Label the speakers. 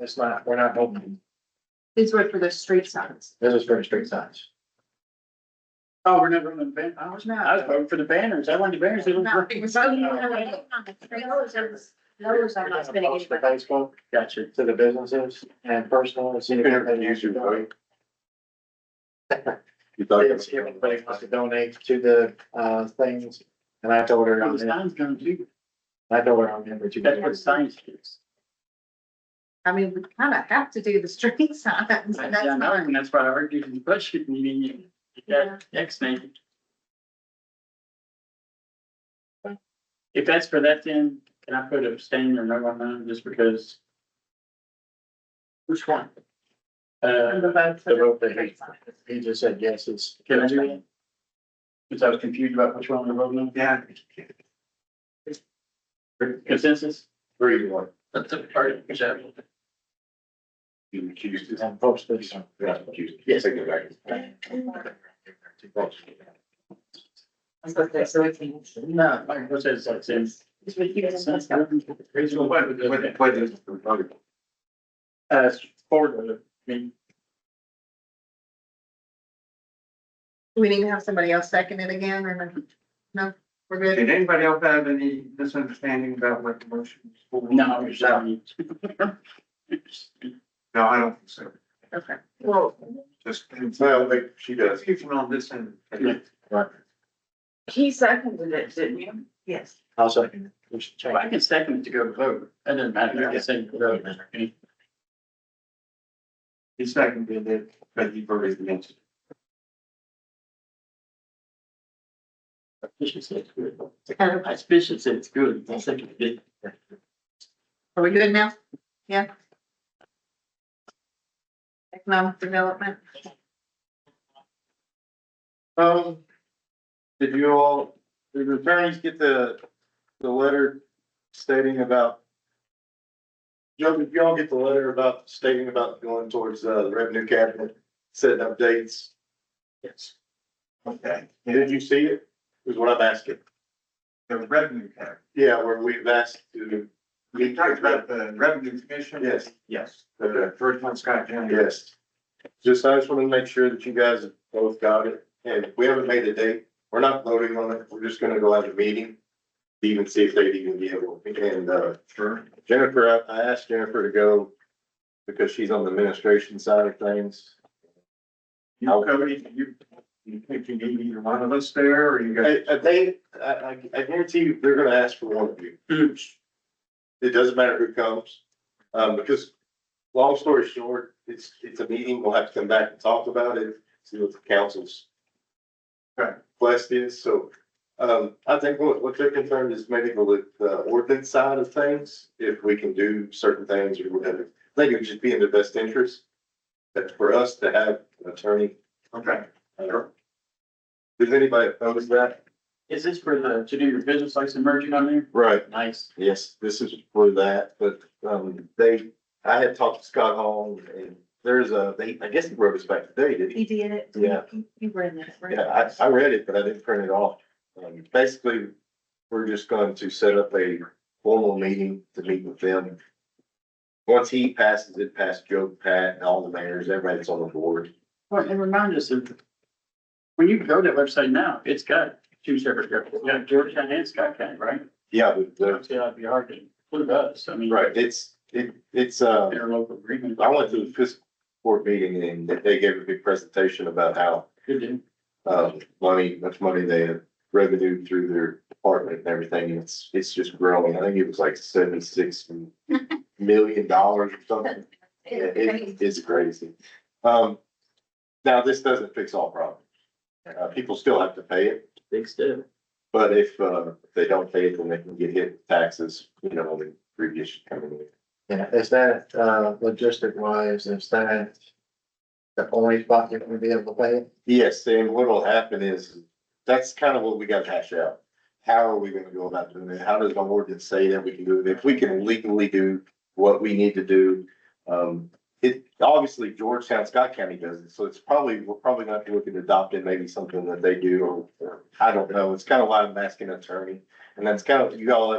Speaker 1: It's not, we're not opening,
Speaker 2: These were for the street signs.
Speaker 1: this is for street signs.
Speaker 3: Oh, we're never gonna ban, I was not, I was voting for the banners, I wanted the banners. they
Speaker 2: No,
Speaker 3: looked-
Speaker 2: we're talking about the trailers and- Those are not spending any
Speaker 1: The
Speaker 2: money.
Speaker 1: Facebook
Speaker 3: Gotcha.
Speaker 1: to the businesses and personal. and see if anybody wants to donate.
Speaker 4: You thought.
Speaker 1: See if anybody wants to donate to the, uh, things, and I told her,
Speaker 3: Well, the
Speaker 1: I'm in-
Speaker 3: signs gonna do,
Speaker 1: I told her I'm in with you.
Speaker 3: that's what signs do.
Speaker 2: I mean, we kind of have to do the street signs,
Speaker 3: I
Speaker 2: and that's
Speaker 3: know,
Speaker 2: not.
Speaker 3: and that's why I argued in the budget meeting, you- you got X name. If that's for that, then can I put abstain or no on that, just because? Which one?
Speaker 2: And
Speaker 3: Uh,
Speaker 2: the vote for
Speaker 1: The vote
Speaker 2: the
Speaker 1: that
Speaker 2: street
Speaker 1: he,
Speaker 2: signs.
Speaker 1: he just said, yes, it's.
Speaker 3: can I do that? Cause I was confused about which one we were voting on. Yeah. Consensus?
Speaker 4: Three, you want.
Speaker 3: That's a part of the.
Speaker 4: You recused it.
Speaker 1: And post this.
Speaker 4: Yeah, recused.
Speaker 3: Yes.
Speaker 4: Take it back.
Speaker 3: No, my process is like this.
Speaker 4: Wait, wait, this is the vote.
Speaker 3: Uh, forward with it, I mean,
Speaker 2: We need to have somebody else second it again, or no? No, we're good.
Speaker 5: Did anybody else have any misunderstanding about what the motion is for?
Speaker 3: no, it's not.
Speaker 5: No, I don't think so.
Speaker 2: Okay.
Speaker 5: Well. Just,
Speaker 4: No, like, she does.
Speaker 5: confusion on this end.
Speaker 3: Yeah.
Speaker 6: He seconded it, didn't you? Yes.
Speaker 1: I'll second it. We should
Speaker 3: Well,
Speaker 1: change
Speaker 3: I can second it to go to vote, that doesn't matter, I can second to vote. Okay.
Speaker 5: He seconded it, but he voted against it.
Speaker 3: Suspicious it's good.
Speaker 2: Um,
Speaker 3: Suspicious it's good, I second it.
Speaker 2: Are we good now? Yeah. Economic development.
Speaker 4: Um, did you all, did the attorneys get the, the letter stating about? Joe, did y'all get the letter about stating about going towards, uh, the revenue cabinet, setting up dates?
Speaker 3: Yes.
Speaker 5: Okay,
Speaker 4: Did you see it? Is what I'm asking.
Speaker 5: the revenue cap.
Speaker 4: Yeah, where we've asked to.
Speaker 5: We talked about the revenue commission.
Speaker 4: Yes.
Speaker 5: Yes, the first one, Scott Jenny.
Speaker 4: Yes. Just, I just wanna make sure that you guys have both got it, and we haven't made a date, we're not voting on it, we're just gonna go out to meeting. to Even see if they'd even be able, and, uh,
Speaker 5: Sure.
Speaker 4: Jennifer, I, I asked Jennifer to go because she's on the administration side of things.
Speaker 5: You, Cody, you, you think you need either one of us there, or you got?
Speaker 4: I, I think, I, I, I guarantee you, they're gonna ask for one of you. It doesn't matter who comes, um, because, long story short, it's, it's a meeting, we'll have to come back and talk about it, see what the council's.
Speaker 5: Right.
Speaker 4: Blessed is, so, um, I think what, what they're concerned is maybe the, the ordinance side of things, if we can do certain things or whatever. I think it would just be in the best interest, that for us to have an attorney.
Speaker 5: Okay,
Speaker 4: uh, Does anybody oppose that?
Speaker 3: Is this for the, to do your business license merging on there?
Speaker 4: Right,
Speaker 3: Nice.
Speaker 4: Yes, this is for that, but, um, they, I had talked to Scott Hall and there's a, they, I guess he wrote us back today, did he?
Speaker 6: did it.
Speaker 4: Yeah.
Speaker 6: You were in that,
Speaker 4: Yeah, I, I read it, but I didn't print it off. Um, basically, we're just going to set up a formal meeting to meet with them. Once he passes it, past Joe, Pat, and all the mayors, everybody that's on the board.
Speaker 3: Well, and remind us of, when you go to that website now, it's got two separate, it's got Georgetown and Scott County, right?
Speaker 4: Yeah, but, the-
Speaker 3: Obviously, that'd be hard to include us, I mean.
Speaker 4: right, it's, it, it's, uh.
Speaker 3: Interlocal agreement.
Speaker 4: I went to the fiscal court meeting and they gave a big presentation about how
Speaker 3: Good deal.
Speaker 4: um, money, much money they have revenue through their department and everything. and It's, it's just growing. I think it was like seventy-six million dollars or something. Yeah, It, it's crazy. Um, now this doesn't fix all problems. Uh, people still have to pay it,
Speaker 3: Big step.
Speaker 4: but if, uh, if they don't pay it, then they can get hit with taxes, you know, on the previous coming in.
Speaker 1: Yeah, is that, uh, logistic wise, is that the only spot you're gonna be able to pay?
Speaker 4: Yes, and what'll happen is, that's kind of what we gotta hash out. How are we gonna go about doing it? How does the ordinance say that we can do it? If we can legally do what we need to do. Um, it, obviously Georgetown, Scott County does it, so it's probably, we're probably gonna have to look at adopting maybe something that they do or, or I don't know. It's kind of why I'm asking an attorney. And that's kind of, you all have